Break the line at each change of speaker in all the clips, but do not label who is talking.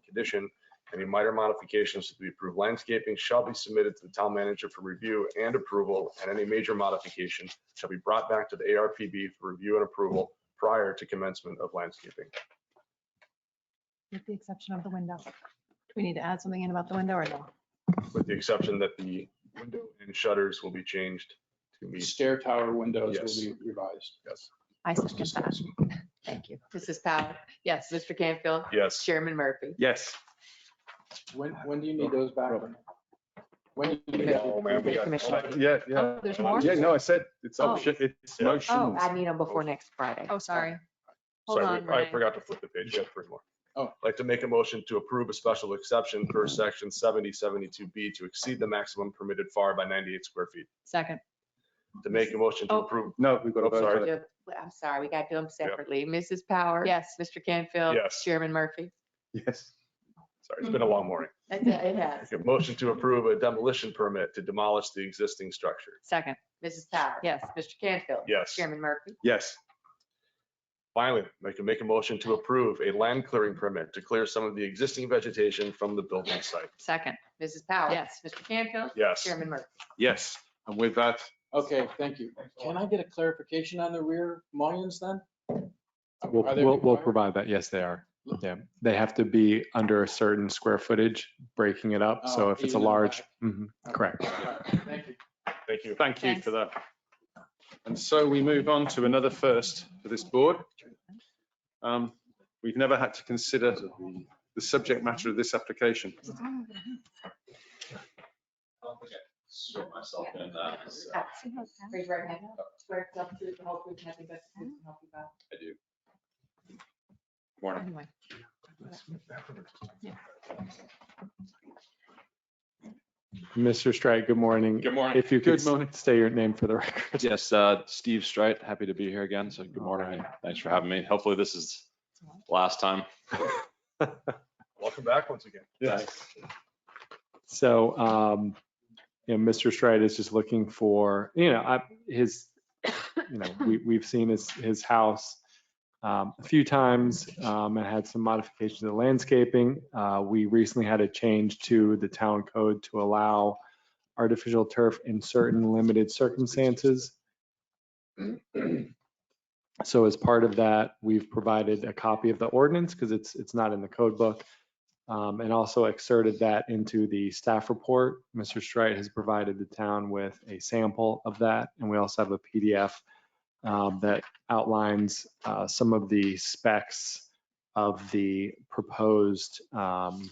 condition, any minor modifications to the approved landscaping shall be submitted to the town manager for review and approval, and any major modification shall be brought back to the ARPB for review and approval prior to commencement of landscaping.
with the exception of the window. Do we need to add something in about the window or no?
with the exception that the window and shutters will be changed to meet,
Stair tower windows
Yes.
will be revised.
yes.
I second that. Thank you.
Mrs. Powell, yes. Mr. Canfield,
Yes,
Chairman Murphy.
Yes.
When, when do you need those back? When? do you need
No, man, we got-
Commissioner.
Yeah, yeah.
Oh, there's more?
Yeah, no, I said it's
Oh.
up, shi- it's
Yeah.
motion.
I need them before next Friday.
Oh, sorry. Hold
sorry,
on,
we- I
Renee.
forgot to flip the page, yeah, three more.
Oh.
I'd Like to make a motion to approve a special exception per section seventy seventy-two B to exceed the maximum permitted FAR by ninety-eight square feet.
Second.
To make a motion to
Oh.
approve,
No, we've got to
Oh,
vote on
sorry.
it.
Yep. I'm sorry, we got to do them separately. Mrs. Power.
Yes.
Mr. Canfield.
Yes.
Chairman Murphy.
Yes.
sorry, it's
Mm-hmm.
been a long morning.
That's it, it has.
Okay, Motion to approve a demolition permit to demolish the existing structure.
Second.
Mrs. Power.
Yes.
Mr. Canfield.
Yes.
Chairman Murphy.
Yes.
Finally, I can make a motion to approve a land clearing permit to clear some of the existing vegetation from the building site.
Second.
Mrs. Power.
Yes.
Mr. Canfield.
Yes.
Chairman Murphy.
Yes. And with that,
Okay, thank you. Can I get a clarification on the rear mullions then?
We'll,
Are they
we'll, we'll
required?
provide that. Yes, they are. Yeah. They have to be under a certain square footage, breaking it up. So
Oh,
if it's
even
a
in the
large,
back.
Mhm, correct.
All right, Thank you.
Thank you.
thank you
Thanks.
for that. And so we move on to another first for this board. Um, We've never had to consider the subject matter of this application.
sort myself in that. so I
Raise your right hand. Swear to tell the truth, the whole truth, nothing but the truth, so help you God.
do.
Morning.
Anyway.
Mr. Strike, good morning.
Good morning.
If you could
Good morning.
say your name for the record.
Yes, uh, Steve Strite, happy to be here again. So good morning. and Thanks for having me. Hopefully this is the last time.
Welcome back once again.
So, um, you know, Mr. Stride is just looking for, you know, I, his, you know, we, we've seen his, his house um, a few times, um, and had some modifications to the landscaping. Uh, we recently had a change to the town code to allow artificial turf in certain limited circumstances. So as part of that, we've provided a copy of the ordinance, because it's, it's not in the code book um, and also exerted that into the staff report. Mr. Strite has provided the town with a sample of that, and we also have a PDF um, that outlines uh, some of the specs of the proposed um,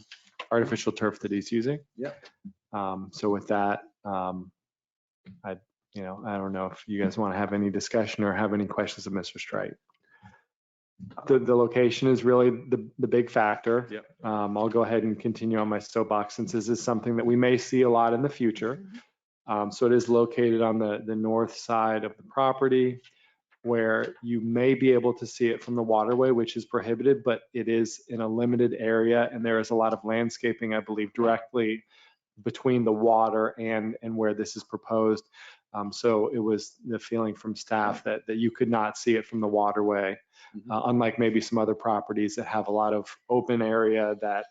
artificial turf that he's using.
Yep.
Um, So with that, um, I, you know, I don't know if you guys want to have any discussion or have any questions of Mr. Strite. The, the location is really the, the big factor.
Yep.
Um, I'll go ahead and continue on my soapbox since this is something that we may see a lot in the future. Um, so it is located on the, the north side of the property where you may be able to see it from the waterway, which is prohibited, but it is in a limited area and there is a lot of landscaping, I believe, directly between the water and, and where this is proposed. Um, so it was the feeling from staff that, that you could not see it from the waterway uh, unlike maybe some other properties that have a lot of open area that,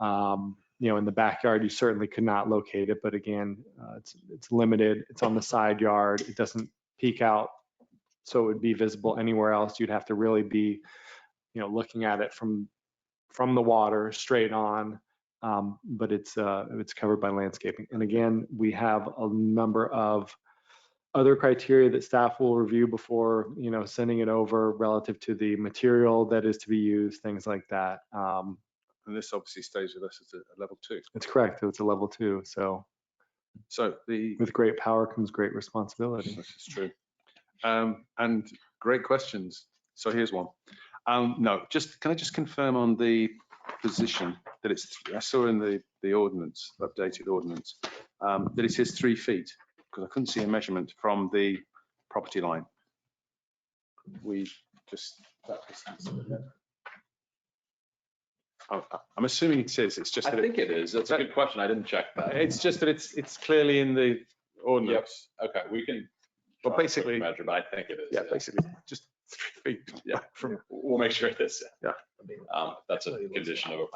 um, you know, in the backyard, you certainly could not locate it, but again, uh, it's, it's limited, it's on the side yard, it doesn't peek out, so it would be visible anywhere else, you'd have to really be, you know, looking at it from, from the water, straight on, um, but it's, uh, it's covered by landscaping. And again, we have a number of other criteria that staff will review before, you know, sending it over relative to the material that is to be used, things like that. Um,
And this obviously stays with us as a level two.
It's correct, it's a level two, so
So the
with great power comes great responsibility.
This is true. Um, and great questions. So here's one. Um, no, just, can I just confirm on the position that it's, I saw in the, the ordinance, updated ordinance, um, that it says three feet, because I couldn't see a measurement from the property line. We just, that distance. isn't it? I- I- I'm assuming it is, it's just
I
that, it-
think it is. That's a good question. I didn't check that.
it's just that it's, it's clearly in the
Yep.
ordinance.
Okay, we can.
But
try to
basically-
Measure, but I think it is.
Yeah, basically, just three feet
Yeah.
from
We'll make sure it is.
Yeah.
Um, That's a condition of approval.